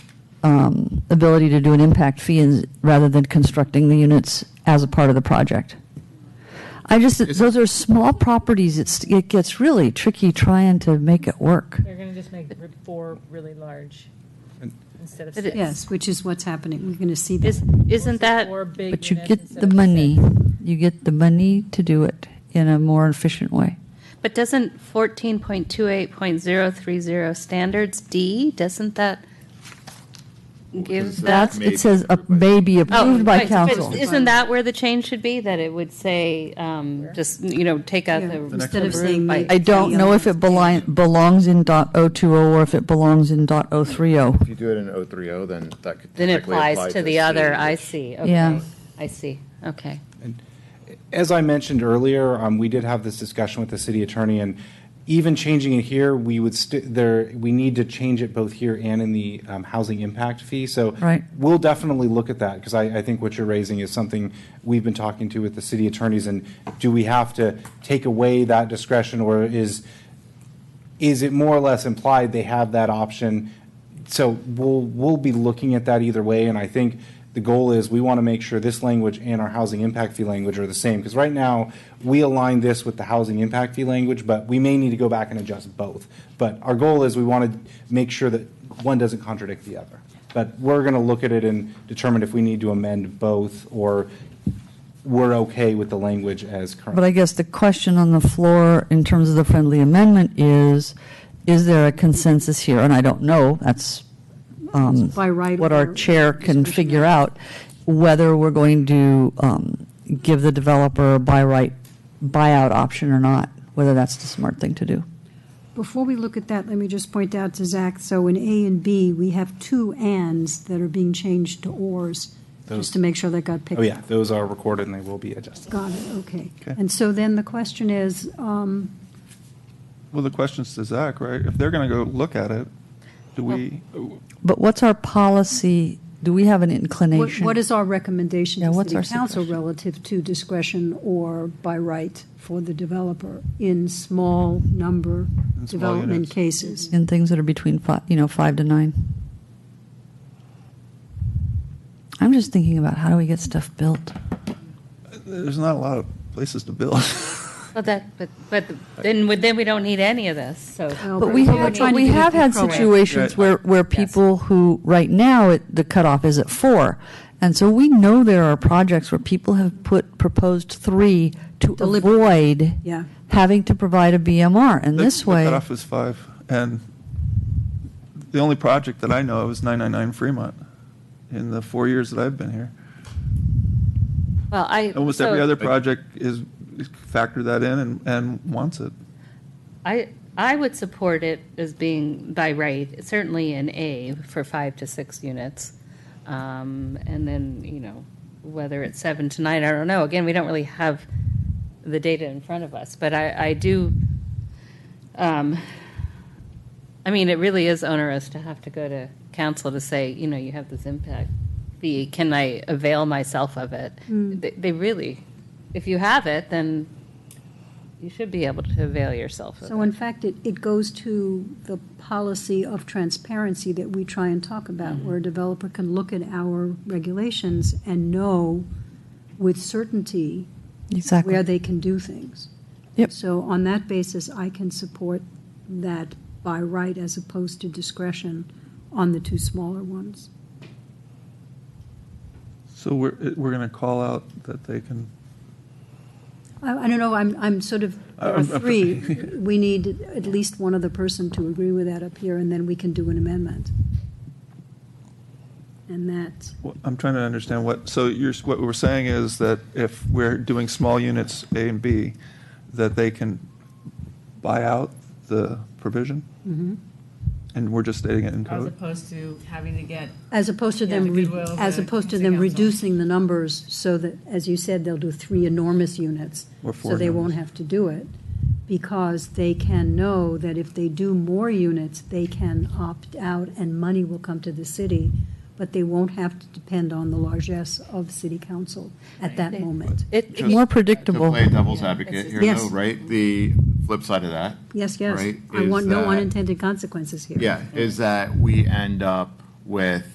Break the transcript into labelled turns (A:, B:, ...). A: um, ability to do an impact fee is- rather than constructing the units as a part of the project. I just, those are small properties, it's, it gets really tricky trying to make it work.
B: They're going to just make r- four really large
C: And-
B: instead of
D: But
B: six.
D: it- Yes, which is what's happening. We're going to see
E: Is-
D: this.
E: Isn't that,
B: Four big
A: But you
B: units
A: get
B: instead
A: the
B: of
A: money,
B: six.
A: you get the money to do it in a more efficient way.
E: but doesn't 14.28.030 standards D, doesn't that give
A: That's,
E: that?
A: it says uh, may be approved by
E: Oh, right, but
A: council.
E: Isn't that where the change should be? That it would say, um, just, you know, take out
D: Yeah,
E: the.
D: Instead of
E: the
D: saying.
E: by-
D: may-
A: I don't know if it beli- belongs in dot .020 or if it belongs in dot .030.
F: If you do it in 030, then that could.
E: Then it
F: technically apply
E: applies to the other,
F: C,
E: I
F: which-
E: see,
A: Yeah.
E: okay, I see, okay.
C: As I mentioned earlier, um, we did have this discussion with the city attorney, and even changing it here, we would st- there we need to change it both here and in the um, housing impact fee. So
A: Right.
C: we'll definitely look at that because I, I think what you're raising is something we've been talking to with the city attorneys. And do we have to take away that discretion, or is is it more or less implied they have that option? So we'll, we'll be looking at that either way, and I think the goal is we want to make sure this language and our housing impact fee language are the same, because right now, we align this with the housing impact fee language, but we may need to go back and adjust both. But our goal is we want to make sure that one doesn't contradict the other. But we're going to look at it and determine if we need to amend both, or we're okay with the language as current.
A: But I guess the question on the floor in terms of the friendly amendment is, is there a consensus here? And I don't know, that's um,
D: By right
A: what our
D: order,
A: chair can
D: discretionary.
A: figure out, whether we're going to um, give the developer a buy right, buyout option or not, whether that's the smart thing to do.
D: Before we look at that, let me just point out to Zach, so in A and B, we have two ands that are being changed to ors, just to make sure that got picked
C: Oh,
D: up.
C: yeah, those are recorded and they will be adjusted.
D: Got it, okay.
G: Okay.
D: And so then the question is, um,
G: Well, the question's to Zach, right? If they're going to go look at it, do we,
A: But what's our policy? Do we have an
D: what
A: inclination?
D: what is our recommendation
A: Yeah,
D: to
A: what's
D: city
A: our
D: council
A: suggestion?
D: relative to discretion or by right for the developer in small number
G: In small
D: development
G: units.
D: cases?
A: in things that are between five, you know, five to nine. I'm just thinking about how do we get stuff built?
G: there's not a lot of places to build.
E: But that, but, but then, we- then we don't need any of this, so.
D: Well,
A: But we
D: we're
A: have,
D: trying to
A: we
D: be
A: have had
D: proactive.
A: situations
G: Right.
A: where, where
E: Yes.
A: people who, right now, it- the cutoff is at four. And so we know there are projects where people have put, proposed three to
D: Deliberate.
A: avoid
D: Yeah.
A: having to provide a BMR. And
G: The-
A: this
G: The
A: way,
G: cutoff is five, and the only project that I know of is 999 Fremont in the four years that I've been here.
E: Well, I.
G: Almost every
E: so-
G: other project is, is factored that in and, and wants it.
E: I, I would support it as being by right, certainly in A for five to six units. Um, and then, you know, whether it's seven to nine, I don't know. Again, we don't really have the data in front of us, but I, I do, um, I mean, it really is onerous to have to go to council to say, you know, you have this impact fee. Can I avail myself of it? They, they really, if you have it, then you should be able to avail yourself of
D: So
E: it.
D: in fact, it, it goes to the policy of transparency that we try and talk about,
A: Mm-hmm.
D: where a developer can look at our regulations and know with certainty where
A: exactly.
D: they can do things.
A: Yep.
D: So on that basis, I can support that by right as opposed to discretion on the two smaller ones.
G: So we're, we're going to call out that they can,
D: I, I don't know, I'm, I'm sort of, there are
G: Uh, I'm- I'm-
D: three. We need at least one other person to agree with that up here, and then we can do an amendment. And that,
G: what- I'm trying to understand what, so you're, what we're saying is that if we're doing small units A and B, that they can buy out the provision? And we're just stating it in
H: As
G: code?
H: opposed to having to get,
D: as opposed to
H: Yeah,
D: them,
H: the
D: re-
H: goodwill of
D: as
H: the
D: opposed to
H: council
D: them
H: council.
D: reducing the numbers so that, as you said, they'll do three enormous units.
G: Or
D: So
G: four
D: they won't
G: enormous.
D: have to do it, because they can know that if they do more units, they can opt out and money will come to the city, but they won't have to depend on the largesse of city council at that moment.
E: It,
F: Just-
A: More
F: To
A: predictable.
F: play devil's advocate here, though,
D: Yes.
F: right? The flip side of that,
D: Yes, yes.
F: Right,
D: I
F: is
D: want no
F: that-
D: unintended consequences here.
F: yeah, is that we end up with